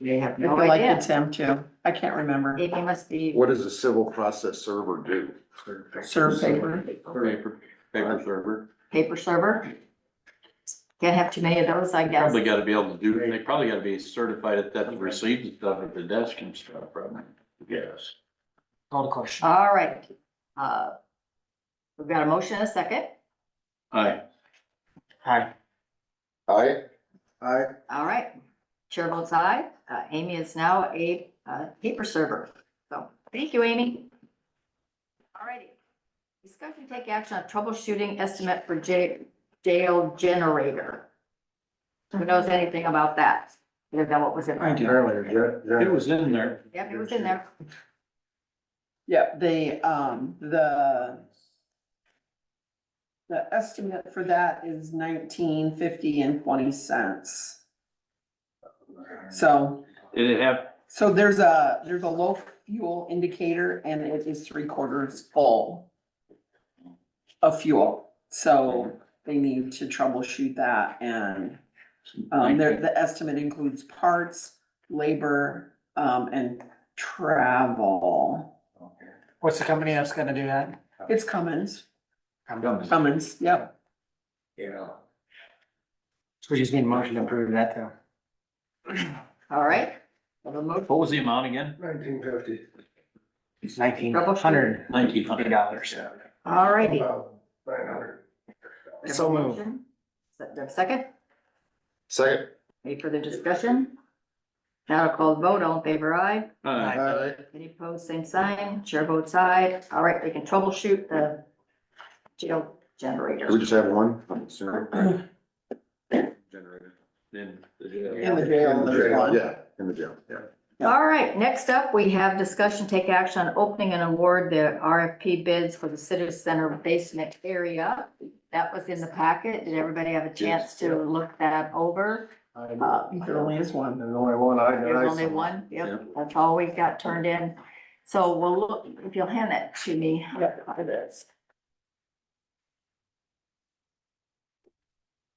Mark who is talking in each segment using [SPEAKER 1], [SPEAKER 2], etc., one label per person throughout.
[SPEAKER 1] They have
[SPEAKER 2] I feel
[SPEAKER 1] no
[SPEAKER 2] like
[SPEAKER 1] idea.
[SPEAKER 2] it's him too. I can't remember.
[SPEAKER 1] It must be.
[SPEAKER 3] What does a civil process server do?
[SPEAKER 2] Serve paper.
[SPEAKER 4] Paper, paper server,
[SPEAKER 1] Paper server? Can't have too many of those, I guess.
[SPEAKER 4] probably gotta be able to do, they probably gotta be certified at that, receive the stuff at the desk and stuff, probably.
[SPEAKER 3] Yes.
[SPEAKER 5] Call the question.
[SPEAKER 1] All right. Uh, We've got a motion and a second.
[SPEAKER 4] Aye.
[SPEAKER 5] Hi.
[SPEAKER 3] Aye. Aye.
[SPEAKER 1] All right. Chair votes aye. Uh, Amy is now a uh, paper server. So, thank you, Amy. All righty. Discuss and take action on troubleshooting estimate for ja- jail generator. Who knows anything about that? Is that what was in
[SPEAKER 2] I
[SPEAKER 1] there?
[SPEAKER 2] do.
[SPEAKER 4] It was in there.
[SPEAKER 1] Yep, it was in there.
[SPEAKER 2] Yeah, the, um, the the estimate for that is nineteen fifty and twenty cents. So,
[SPEAKER 4] Did it have,
[SPEAKER 2] so there's a, there's a low fuel indicator and it is three quarters full of fuel. So they need to troubleshoot that and Um, there, the estimate includes parts, labor, um, and travel.
[SPEAKER 5] What's the company that's gonna do that?
[SPEAKER 2] It's Cummins,
[SPEAKER 4] Cummins.
[SPEAKER 2] Cummins, yep.
[SPEAKER 5] Yeah. So we just need a motion to approve that though.
[SPEAKER 1] All right. Well, the motion
[SPEAKER 4] what was the amount again?
[SPEAKER 3] Nineteen fifty.
[SPEAKER 5] It's nineteen
[SPEAKER 1] Trouble
[SPEAKER 5] hundred.
[SPEAKER 1] shooter.
[SPEAKER 4] Nineteen hundred.
[SPEAKER 5] Dollars.
[SPEAKER 1] All righty.
[SPEAKER 3] Nine hundred.
[SPEAKER 5] So moved.
[SPEAKER 1] Do I have a Second,
[SPEAKER 3] Second.
[SPEAKER 1] any further discussion? Now I'll call the vote, all in favor, aye.
[SPEAKER 4] Aye.
[SPEAKER 3] Aye.
[SPEAKER 1] Any opposed, same sign, chair votes aye. All right, we can troubleshoot the jail generator.
[SPEAKER 3] We just have one. Generator.
[SPEAKER 4] Then the jail.
[SPEAKER 2] In the jail,
[SPEAKER 3] In the
[SPEAKER 2] there's
[SPEAKER 3] jail,
[SPEAKER 2] one.
[SPEAKER 3] Yeah, in the jail, yeah.
[SPEAKER 1] All right, next up, we have discussion, take action on opening and award the RFP bids for the city center basement area. That was in the packet. Did everybody have a chance to look that over? Uh,
[SPEAKER 2] There only is one.
[SPEAKER 3] There's only one. I
[SPEAKER 1] There's only one, yep, that's all we got turned in. So we'll look, if you'll hand that to me.
[SPEAKER 2] Yep.
[SPEAKER 1] It is.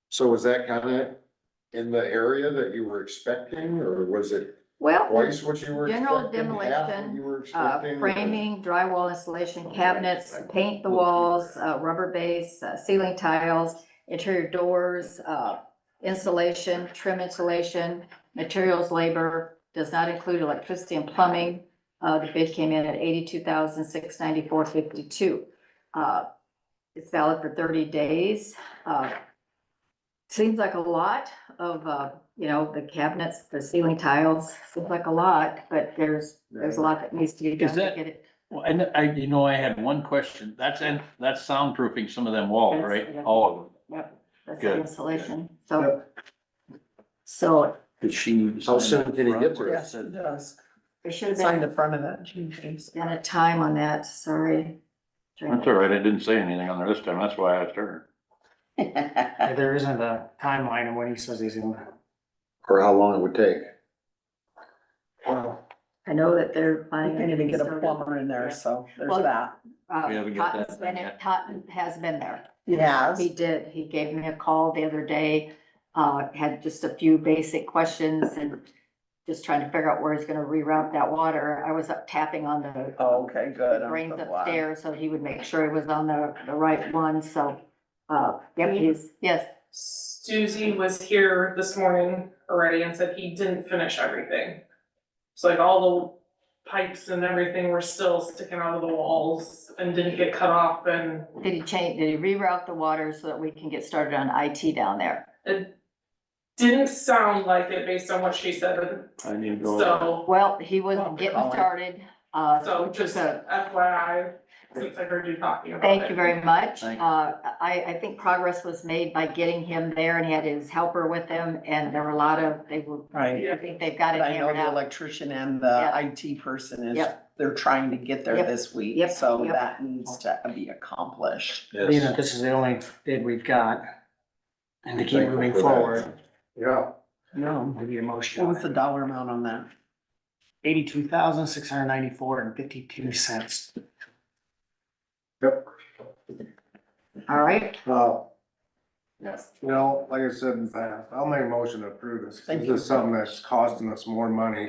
[SPEAKER 3] So was that kinda in the area that you were expecting, or was it
[SPEAKER 1] Well,
[SPEAKER 3] twice what you were
[SPEAKER 1] General
[SPEAKER 3] expecting? half what
[SPEAKER 1] demolition,
[SPEAKER 3] you were
[SPEAKER 1] uh,
[SPEAKER 3] expecting?
[SPEAKER 1] framing, drywall installation, cabinets, paint the walls, uh, rubber base, uh, ceiling tiles, interior doors, uh, insulation, trim insulation, materials, labor, does not include electricity and plumbing. Uh, the bid came in at eighty-two thousand, six ninety-four, fifty-two. Uh, it's valid for thirty days. Uh, seems like a lot of, uh, you know, the cabinets, the ceiling tiles, seems like a lot, but there's, there's a lot that needs to be done
[SPEAKER 4] Is
[SPEAKER 1] to
[SPEAKER 4] that-
[SPEAKER 1] get it.
[SPEAKER 4] Well, and I, you know, I had one question. That's, in that's soundproofing some of them walls,
[SPEAKER 1] That's-
[SPEAKER 4] right?
[SPEAKER 1] yeah.
[SPEAKER 4] All of them.
[SPEAKER 1] Yep, that's the
[SPEAKER 4] Good.
[SPEAKER 1] insulation, so. So
[SPEAKER 4] Did she?
[SPEAKER 3] How soon did it get to
[SPEAKER 2] Yes, it does.
[SPEAKER 1] it should have
[SPEAKER 2] Sign
[SPEAKER 1] been,
[SPEAKER 2] the front of that. Jeez.
[SPEAKER 1] been a time on that, sorry.
[SPEAKER 4] That's all right. I didn't say anything on there this time. That's why I asked her.
[SPEAKER 5] Yeah, There isn't a timeline of when he says he's gonna.
[SPEAKER 3] Or how long it would take?
[SPEAKER 1] I know that they're
[SPEAKER 2] We
[SPEAKER 1] planning.
[SPEAKER 2] can't even get a
[SPEAKER 1] started.
[SPEAKER 2] plumber in there, so there's
[SPEAKER 1] Well-
[SPEAKER 2] that.
[SPEAKER 1] Uh,
[SPEAKER 4] We haven't got that
[SPEAKER 1] Totten's been,
[SPEAKER 4] done yet.
[SPEAKER 1] Totten has been there.
[SPEAKER 2] Yes.
[SPEAKER 1] He did, he gave me a call the other day, uh, had just a few basic questions and just trying to figure out where he's gonna reroute that water. I was up tapping on the
[SPEAKER 2] Oh, Okay, good. I'm
[SPEAKER 1] drains
[SPEAKER 2] so glad.
[SPEAKER 1] upstairs, so he would make sure it was on the, the right one, so, uh, yep, he's, yes.
[SPEAKER 6] Susie was here this morning already and said he didn't finish everything. So like all the pipes and everything were still sticking out of the walls and didn't get cut off and
[SPEAKER 1] Did he change, did he reroute the water so that we can get started on IT down there?
[SPEAKER 6] it didn't sound like it based on what she said,
[SPEAKER 4] I need to go.
[SPEAKER 6] so,
[SPEAKER 1] Well, he was
[SPEAKER 2] Well,
[SPEAKER 1] getting
[SPEAKER 2] Colin.
[SPEAKER 1] started, uh,
[SPEAKER 6] so
[SPEAKER 1] which is
[SPEAKER 6] just
[SPEAKER 1] a
[SPEAKER 6] FYI, since I heard you talking about it.
[SPEAKER 1] Thank you very much. Uh,
[SPEAKER 4] Thank-
[SPEAKER 1] I, I think progress was made by getting him there and he had his helper with him and there were a lot of, they were,
[SPEAKER 2] Right.
[SPEAKER 1] I think they've got it
[SPEAKER 2] But I know
[SPEAKER 1] hammered
[SPEAKER 2] the
[SPEAKER 1] out.
[SPEAKER 2] electrician and the
[SPEAKER 1] Yeah.
[SPEAKER 2] IT person is,
[SPEAKER 1] Yep.
[SPEAKER 2] they're trying to get there
[SPEAKER 1] Yep.
[SPEAKER 2] this week,
[SPEAKER 1] Yep.
[SPEAKER 2] so
[SPEAKER 1] Yep.
[SPEAKER 2] that needs to be accomplished.
[SPEAKER 5] Being that this is the only bid we've got. And to keep
[SPEAKER 3] Thankful
[SPEAKER 5] moving
[SPEAKER 3] for that.
[SPEAKER 5] forward,
[SPEAKER 3] Yeah.
[SPEAKER 2] No.
[SPEAKER 5] give you a motion
[SPEAKER 2] What
[SPEAKER 5] on
[SPEAKER 2] was the
[SPEAKER 5] it.
[SPEAKER 2] dollar amount on that?
[SPEAKER 5] Eighty-two thousand, six hundred ninety-four and fifty-two cents.
[SPEAKER 3] Yep.
[SPEAKER 1] All right,
[SPEAKER 3] Uh,
[SPEAKER 7] Yes.
[SPEAKER 3] You know, like I said in the past, I'll make a motion to approve this.
[SPEAKER 2] Thank
[SPEAKER 3] This is something that's costing us more money